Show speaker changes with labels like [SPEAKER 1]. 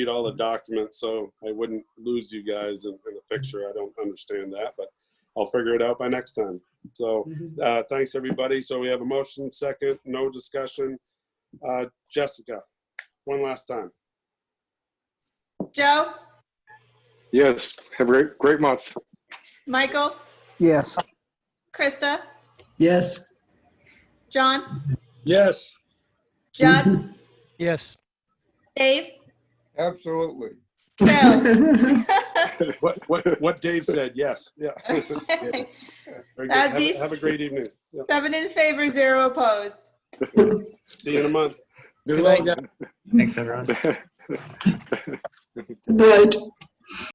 [SPEAKER 1] read all the documents, so I wouldn't lose you guys in, in the picture. I don't understand that, but I'll figure it out by next time. So,
[SPEAKER 2] Mhm.
[SPEAKER 1] uh, thanks, everybody. So we have a motion, second, no discussion. Uh, Jessica, one last time.
[SPEAKER 3] Joe,
[SPEAKER 4] Yes, have a great, great month.
[SPEAKER 3] Michael,
[SPEAKER 5] Yes.
[SPEAKER 3] Krista,
[SPEAKER 2] Yes.
[SPEAKER 3] John,
[SPEAKER 6] Yes.
[SPEAKER 3] Judd,
[SPEAKER 5] Yes.
[SPEAKER 3] Dave,
[SPEAKER 7] Absolutely.
[SPEAKER 3] Phil.
[SPEAKER 1] What, what, what Dave said, yes, yeah. Very good. Have a-
[SPEAKER 3] That'd be-
[SPEAKER 1] have a great evening. Yeah.
[SPEAKER 3] Seven in favor, zero opposed.
[SPEAKER 1] See you in a month.
[SPEAKER 6] Good luck, guys.
[SPEAKER 8] Thanks, everyone.
[SPEAKER 2] Good night.